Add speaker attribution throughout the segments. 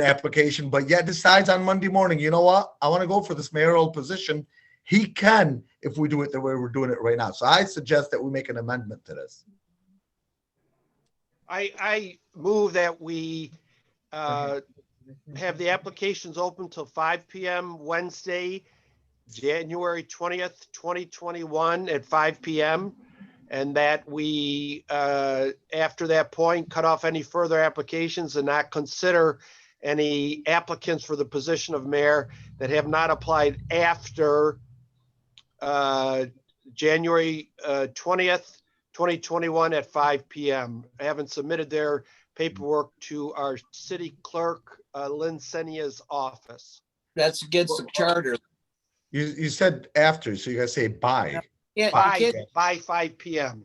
Speaker 1: the application, but yet decides on Monday morning, you know what? I want to go for this mayoral position. He can if we do it the way we're doing it right now. So I suggest that we make an amendment to this.
Speaker 2: I, I move that we uh, have the applications open till five PM Wednesday, January twentieth, twenty twenty-one at five PM. And that we, uh, after that point, cut off any further applications and not consider any applicants for the position of mayor that have not applied after uh, January uh, twentieth, 2021 at 5 PM. I haven't submitted their paperwork to our city clerk, uh, Lynn Senia's office.
Speaker 3: That's against the charter.
Speaker 1: You, you said after, so you gotta say by.
Speaker 3: You can't-
Speaker 2: By,
Speaker 3: you can't,
Speaker 2: by 5 PM.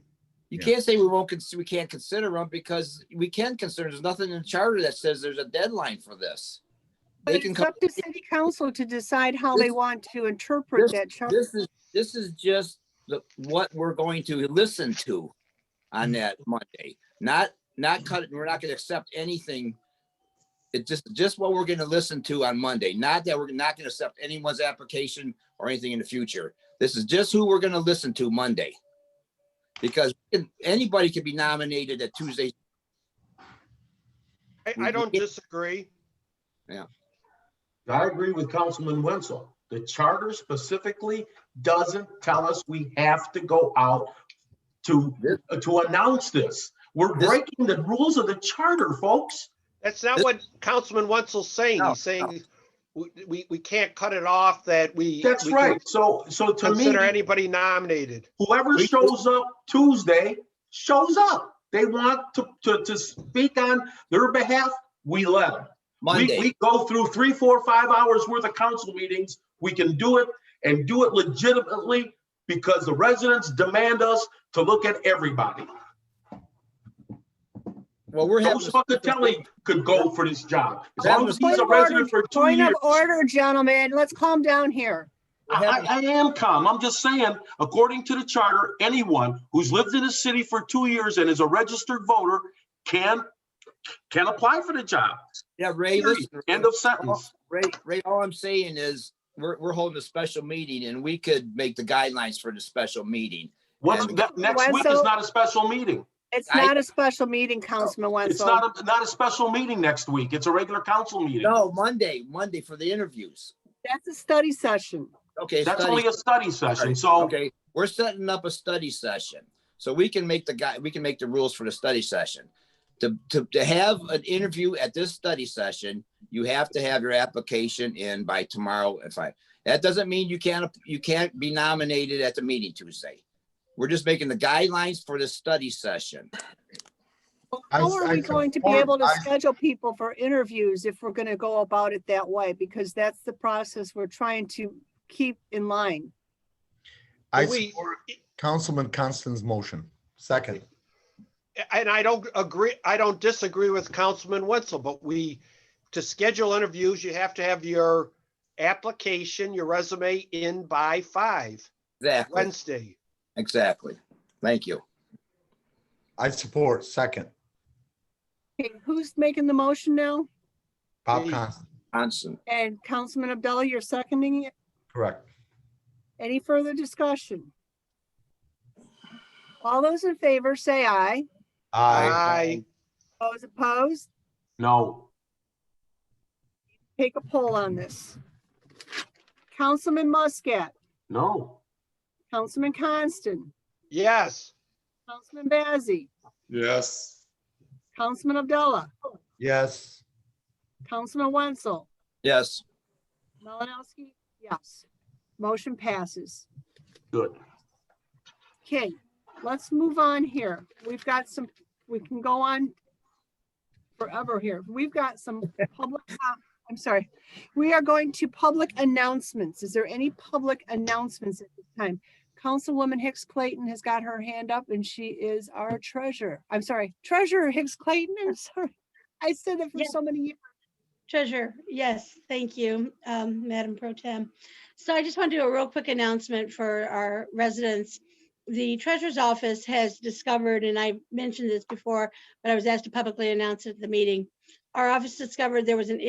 Speaker 3: you can't say we won't, cons- we can't consider them because we can consider, there's nothing in charter that says there's a deadline for this.
Speaker 4: But
Speaker 3: They can
Speaker 4: it's
Speaker 3: come,
Speaker 4: up to city council to decide how they
Speaker 3: This-
Speaker 4: want to interpret that charter.
Speaker 3: this is, this is just the, what we're going to listen to on that Monday. Not, not cut, it. we're not gonna accept anything. It's just, just what we're gonna listen to on Monday, not that we're not gonna accept anyone's application or anything in the future. This is just who we're gonna listen to Monday. Because anybody can be nominated at Tuesday's
Speaker 2: I, I don't disagree.
Speaker 5: I agree with Councilman Wenzel. The charter specifically doesn't tell us we have to go out to, to announce this. We're
Speaker 3: This-
Speaker 5: breaking the rules of the charter, folks.
Speaker 2: That's not
Speaker 3: This-
Speaker 2: what Councilman Wenzel's saying.
Speaker 3: No,
Speaker 2: He's saying we, we, we can't cut it off that we.
Speaker 5: That's
Speaker 2: we can
Speaker 5: right. So, so to
Speaker 2: Consider
Speaker 5: me,
Speaker 2: anybody nominated.
Speaker 5: whoever
Speaker 3: We-
Speaker 5: shows up Tuesday shows up. They want to, to, to speak on their behalf, we let them. We,
Speaker 3: Monday.
Speaker 5: we go through three, four, five hours worth of council meetings. We can do it and do it legitimately because the residents demand us to look at everybody.
Speaker 3: Well, we're having.
Speaker 5: Joe Spacatelli could go for this job. As
Speaker 3: That
Speaker 5: long as
Speaker 3: was-
Speaker 5: he's
Speaker 4: Point
Speaker 5: a
Speaker 4: of order-
Speaker 5: resident for two
Speaker 4: Point of
Speaker 5: years.
Speaker 4: order, gentlemen, let's calm down here.
Speaker 5: I, I I am calm. I'm just saying, according to the charter, anyone who's lived in the city for two years and is a registered voter can, can apply for the job.
Speaker 3: Yeah, Ray, listen,
Speaker 5: End of sentence.
Speaker 3: Ray, Ray, all I'm saying is, we're, we're holding a special meeting and we could make the guidelines for the special meeting.
Speaker 5: What's,
Speaker 3: And-
Speaker 5: that- next week is
Speaker 4: Wenzel?
Speaker 5: not a special meeting.
Speaker 4: It's
Speaker 3: I-
Speaker 4: not a special meeting, Councilman
Speaker 5: It's
Speaker 4: Wenzel.
Speaker 5: not, a not a special meeting next week. It's a regular council meeting.
Speaker 3: No, Monday, Monday for the interviews.
Speaker 4: That's a study session.
Speaker 3: Okay,
Speaker 5: That's
Speaker 3: study-
Speaker 5: only a study session, so
Speaker 3: okay, we're setting up a study session. So we can make the guy, we can make the rules for the study session. To, to, to have an interview at this study session, you have to have your application in by tomorrow at five. That doesn't mean you can't, you can't be nominated at the meeting Tuesday. We're just making the guidelines for the study session.
Speaker 1: I-
Speaker 4: How are
Speaker 1: I
Speaker 4: we going to be
Speaker 1: support-
Speaker 4: able to
Speaker 1: I-
Speaker 4: schedule people for interviews if we're gonna go about it that way? Because that's the process we're trying to keep in line.
Speaker 1: I
Speaker 2: We-
Speaker 1: support Councilman Constance's motion. Second.
Speaker 2: And I don't agree, I don't disagree with Councilman Wenzel, but we, to schedule interviews, you have to have your application, your resume in by five
Speaker 3: Exactly,
Speaker 2: Wednesday.
Speaker 3: exactly. Thank you.
Speaker 1: I support second.
Speaker 4: Okay, Who's making the motion now?
Speaker 1: Bob
Speaker 2: Me.
Speaker 1: Constant,
Speaker 3: Johnson,
Speaker 4: And Councilman Abdullah, you're seconding it?
Speaker 1: correct.
Speaker 4: Any further discussion? All those in favor, say aye.
Speaker 1: I,
Speaker 2: Aye.
Speaker 4: Those opposed,
Speaker 5: no.
Speaker 4: take a poll on this. Councilman Muscat,
Speaker 5: No,
Speaker 4: Councilman Coniston,
Speaker 2: Yes,
Speaker 4: Councilman Bazey,
Speaker 6: Yes.
Speaker 4: Councilman Abdullah,
Speaker 1: yes,
Speaker 4: Councilman Wenzel,
Speaker 3: yes.
Speaker 4: Malinowski, yes. Motion passes.
Speaker 5: good.
Speaker 4: Okay, let's move on here. We've got some, we can go on forever here. We've got some public, uh, I'm sorry. We are going to public announcements. Is there any public announcements at this time? Councilwoman Hicks Clayton has got her hand up and she is our treasurer. I'm sorry, treasurer Hicks Clayton, I'm sorry. I said that for
Speaker 7: Yeah.
Speaker 4: so many years.
Speaker 7: Treasurer, yes, thank you, um, Madam Pro Tem. So I just want to do a real quick announcement for our residents. The treasurer's office has discovered, and I mentioned this before, but I was asked to publicly announce it at the meeting. Our office discovered there was an